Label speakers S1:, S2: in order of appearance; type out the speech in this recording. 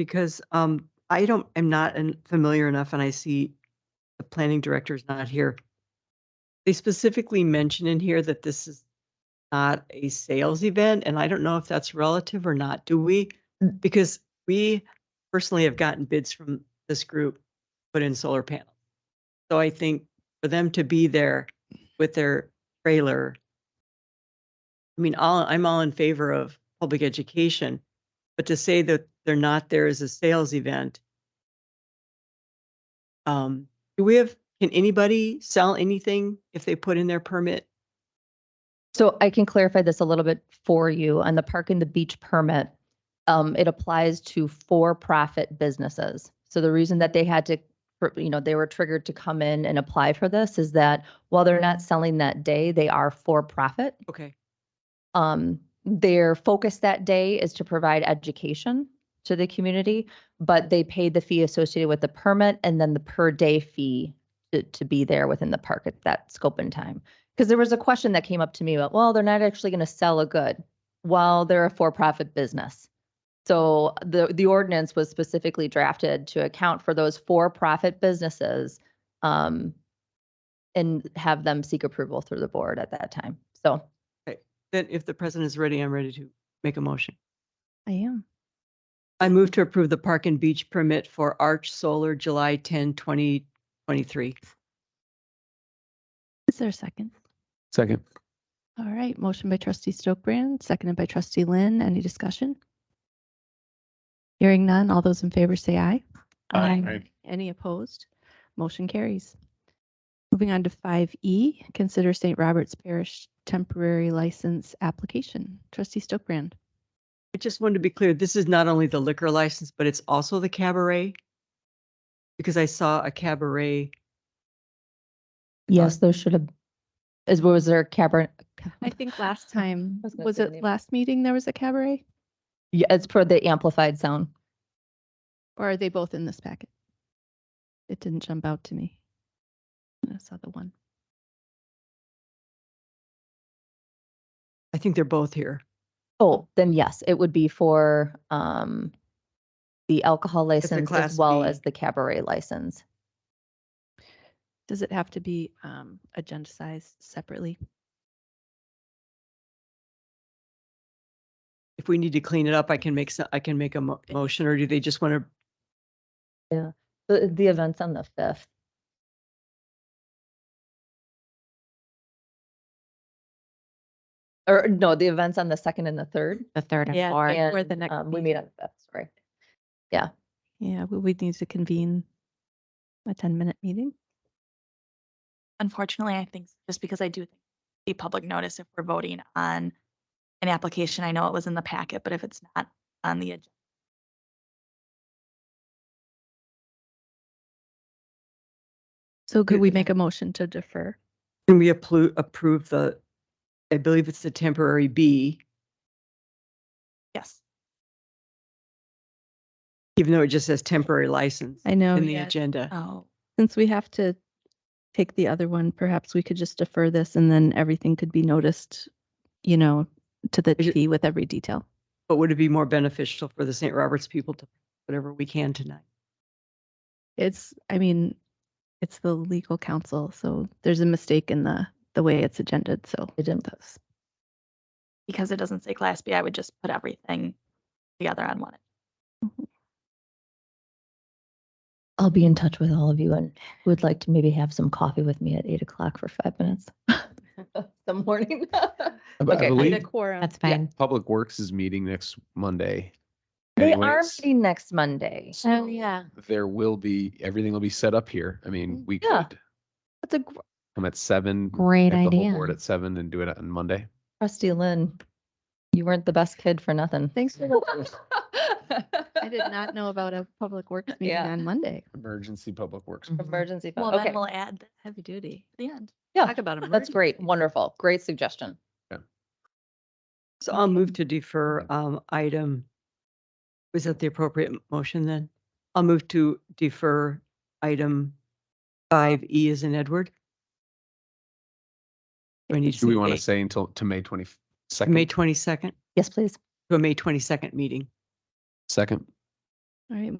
S1: Because um, I don't, am not en- familiar enough and I see the planning director is not here. They specifically mention in here that this is not a sales event and I don't know if that's relative or not. Do we? Because we personally have gotten bids from this group, to put in solar panels. So I think for them to be there with their trailer. I mean, all, I'm all in favor of public education, but to say that they're not there as a sales event. Um, do we have, can anybody sell anything if they put in their permit?
S2: So I can clarify this a little bit for you on the park and the beach permit. Um, it applies to for-profit businesses. So the reason that they had to, for- you know, they were triggered to come in and apply for this is that while they're not selling that day, they are for-profit.
S1: Okay,
S2: Um, their focus that day is to provide education to the community, but they paid the fee associated with the permit and then the per day fee to, to be there within the park at that scope and time. Because there was a question that came up to me about, well, they're not actually going to sell a good while they're a for-profit business. So the, the ordinance was specifically drafted to account for those for-profit businesses um, and have them seek approval through the board at that time. So
S1: then if the president is ready, I'm ready to make a motion.
S2: I am.
S1: I move to approve the park and beach permit for Arch Solar July 10, 2023.
S3: Is there a second?
S4: Second.
S3: All right, motion by trustee Stokebrand, seconded by trustee Lynn. Any discussion? Hearing none, all those in favor say aye. Any opposed? Motion carries. Moving on to 5E, consider St. Robert's Parish temporary license application. Trustee Stokebrand.
S1: I just wanted to be clear, this is not only the liquor license, but it's also the cabaret? Because I saw a cabaret,
S3: Um,
S2: Yes, those should have, is, was there cabaret?
S3: I think last time,
S2: I was gonna
S3: was
S2: say the
S3: it
S2: name.
S3: last meeting there was a cabaret?
S2: Yeah, it's for the amplified sound.
S3: Or are they both in this packet? It didn't jump out to me. I saw the one.
S1: I think they're both here.
S2: Oh, then yes, it would be for, um, the alcohol license as
S1: Class
S2: well
S1: B.
S2: as the cabaret license.
S3: Does it have to be um, agenda size separately?
S1: If we need to clean it up, I can make, so- I can make a mo- motion, or do they just want to,
S2: The, the event's on the fifth. Or no, the event's on the second and the third.
S5: The third and
S3: Yeah,
S5: fourth.
S3: Or
S2: And,
S3: the next
S2: um, we meet on the fifth, sorry.
S3: Yeah, we would need to convene a 10-minute meeting.
S5: Unfortunately, I think just because I do think the public notice if we're voting on an application, I know it was in the packet, but if it's not on the agenda.
S3: So could we
S1: Good.
S3: make a motion to defer?
S1: can we approve, approve the, I believe it's the temporary B,
S5: Yes.
S1: even though it just says temporary license
S3: I know, Uh.
S1: in the
S3: yeah,
S1: agenda?
S5: Oh,
S3: since we have to take the other one, perhaps we could just defer this and then everything could be noticed, you know, to the
S1: Is it-
S3: T with every detail.
S1: But would it be more beneficial for the St. Roberts people to, whatever we can tonight?
S3: It's, I mean, it's the legal counsel, so there's a mistake in the, the way it's agended, so.
S2: It didn't post.
S5: because it doesn't say class B, I would just put everything together on one.
S2: I'll be in touch with all of you and who would like to maybe have some coffee with me at eight o'clock for five minutes. The morning.
S4: I b-
S2: Okay.
S3: Need
S4: I
S3: a
S4: believe
S3: quorum.
S5: That's
S2: Yeah.
S5: fine.
S4: Public Works is meeting next Monday.
S2: They are
S4: anyways.
S2: meeting next Monday.
S4: So There will be, everything will be set up here. I mean, we
S2: Yeah.
S4: could
S2: That's a gr-
S4: come at seven.
S5: Great
S4: have the whole Board at seven and do it on Monday.
S2: trustee Lynn. You weren't the best kid for nothing.
S3: Thanks for I
S2: I
S3: did not know about a public works meeting
S2: Yeah.
S3: on Monday.
S4: Emergency Public Works.
S2: Mm-hmm. Emergency. fund.
S5: Well,
S2: Okay.
S5: then we'll add that
S3: Heavy duty.
S5: at the end.
S2: Yeah,
S3: Talk about them.
S2: that's great. Wonderful. Great suggestion.
S1: So I'll move to defer um, item. Was that the appropriate m- motion then? I'll move to defer item five E as in Edward. Do I need to
S4: Do we
S1: say
S4: want to
S1: date?
S4: say until, to May twenty second?
S1: May twenty-second,
S2: Yes, please.
S1: to a May twenty-second meeting.
S4: Second.
S3: All right,